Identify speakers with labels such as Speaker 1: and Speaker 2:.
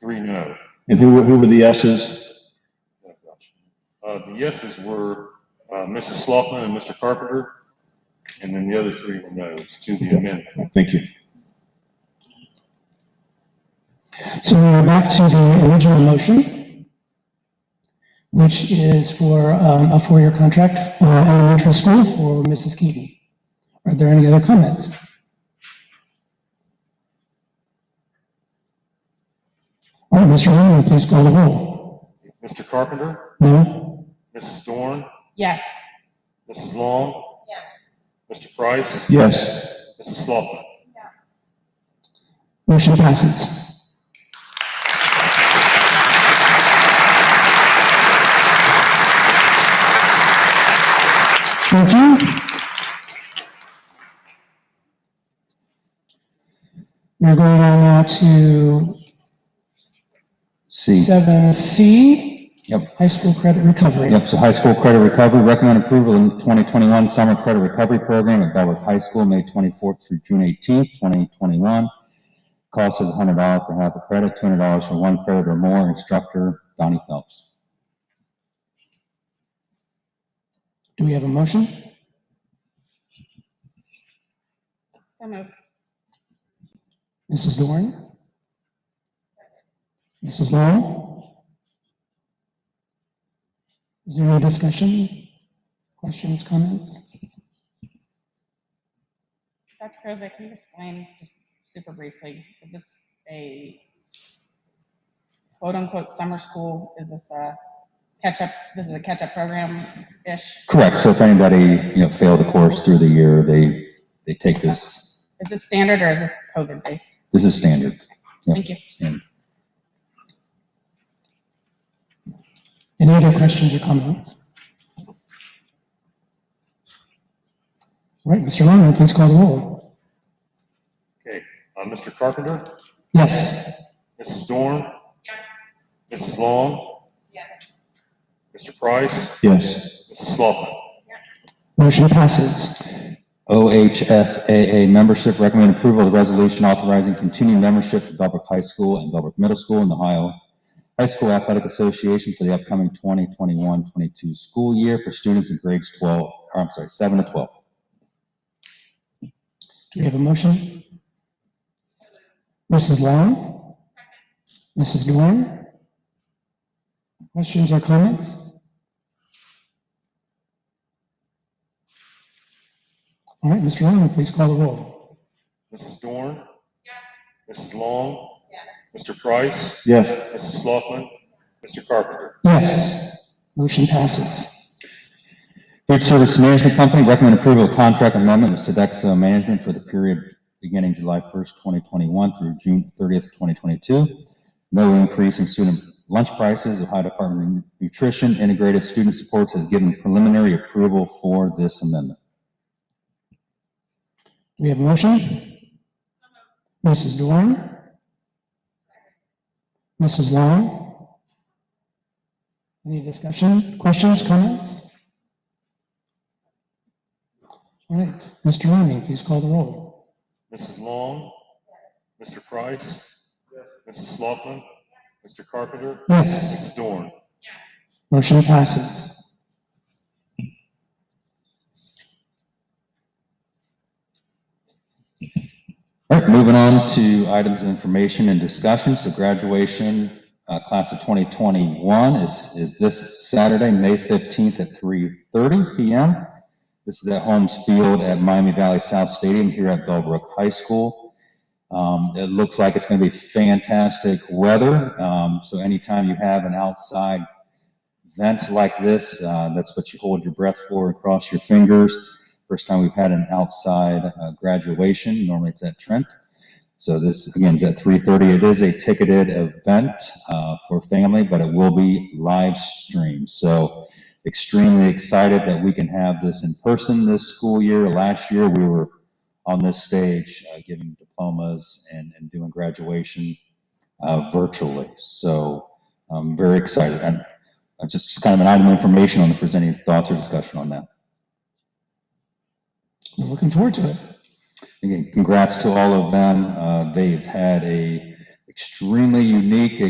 Speaker 1: Three no.
Speaker 2: And who were, who were the yeses?
Speaker 1: Uh, the yeses were, uh, Mrs. Sloughman and Mr. Carpenter, and then the other three were no's to the amendment.
Speaker 2: Thank you.
Speaker 3: So we're back to the original motion, which is for um, a four-year contract for elementary school for Mrs. Keating. Are there any other comments? All right, Mr. Lehman, please call the roll.
Speaker 1: Mr. Carpenter,
Speaker 3: No?
Speaker 1: Mrs. Dorn,
Speaker 4: Yes.
Speaker 1: Mrs. Long,
Speaker 4: Yes.
Speaker 1: Mr. Price,
Speaker 2: Yes.
Speaker 1: Mrs. Sloughman.
Speaker 3: Motion passes. Thank you. We're going on now to
Speaker 2: C.
Speaker 3: seven C,
Speaker 5: Yep,
Speaker 3: high school credit recovery.
Speaker 5: yep, so high school credit recovery, recommend approval in 2021 summer credit recovery program at Bellwood High School, May 24th through June 18th, 2021. Cost is $100 for half a credit, $200 for one credit or more, instructor Donnie Phelps.
Speaker 3: Do we have a motion?
Speaker 4: So moved.
Speaker 3: Mrs. Dorn? Mrs. Lowell? Is there any discussion? Questions, comments?
Speaker 4: Dr. Krozak, can you explain just super briefly, is this a quote-unquote summer school? Is this a catch-up, this is a catch-up program-ish?
Speaker 5: Correct, so if anybody, you know, failed a course through the year, they, they take this,
Speaker 4: Is this standard or is this COVID-based?
Speaker 5: this is standard. Yep,
Speaker 4: Thank you.
Speaker 5: standard.
Speaker 3: Any other questions or comments? All right, Mr. Longman, please call the roll.
Speaker 1: Okay, uh, Mr. Carpenter,
Speaker 3: Yes.
Speaker 1: Mrs. Dorn. Mrs. Long,
Speaker 4: Yes.
Speaker 1: Mr. Price,
Speaker 2: Yes.
Speaker 1: Mrs. Sloughman.
Speaker 3: Motion passes.
Speaker 5: OHSAA membership, recommend approval of resolution authorizing continued membership for Belbrook High School and Belbrook Middle School in the Ohio High School Athletic Association for the upcoming 2021-22 school year for students in grades 12, or I'm sorry, 7 to 12.
Speaker 3: Do we have a motion? Mrs. Long? Mrs. Dorn? Questions or comments? All right, Mr. Longman, please call the roll.
Speaker 1: Mrs. Dorn. Mrs. Long. Mr. Price,
Speaker 2: Yes.
Speaker 1: Mrs. Sloughman, Mr. Carpenter.
Speaker 3: Yes. Motion passes.
Speaker 5: Food Service Management Company, recommend approval of contract amendment with Sodexo Management for the period beginning July 1st, 2021 through June 30th, 2022. No increase in student lunch prices. Ohio Department of Nutrition Integrated Student Supports has given preliminary approval for this amendment.
Speaker 3: Do we have a motion? Mrs. Dorn? Mrs. Long? Any discussion, questions, comments? All right, Mr. Rooney, please call the roll.
Speaker 1: Mrs. Long. Mr. Price. Mrs. Sloughman, Mr. Carpenter.
Speaker 3: Yes,
Speaker 1: Mrs. Dorn.
Speaker 3: motion passes.
Speaker 5: All right, moving on to items of information and discussion. So graduation, uh, class of 2021 is, is this Saturday, May 15th at 3:30 PM. This is at Holmes Field at Miami Valley South Stadium here at Bellbrook High School. Um, it looks like it's going to be fantastic weather. Um, so anytime you have an outside event like this, uh, that's what you hold your breath for and cross your fingers. First time we've had an outside uh, graduation. Normally it's at Trent. So this again is at 3:30. It is a ticketed event uh, for family, but it will be live streamed. So extremely excited that we can have this in person this school year. Last year we were on this stage uh, giving diplomas and, and doing graduation uh, virtually. So I'm very excited. And uh, just, just kind of an item of information on if there's any thoughts or discussion on that.
Speaker 3: We're looking forward to it.
Speaker 5: Again, congrats to all of them. Uh, they've had a extremely unique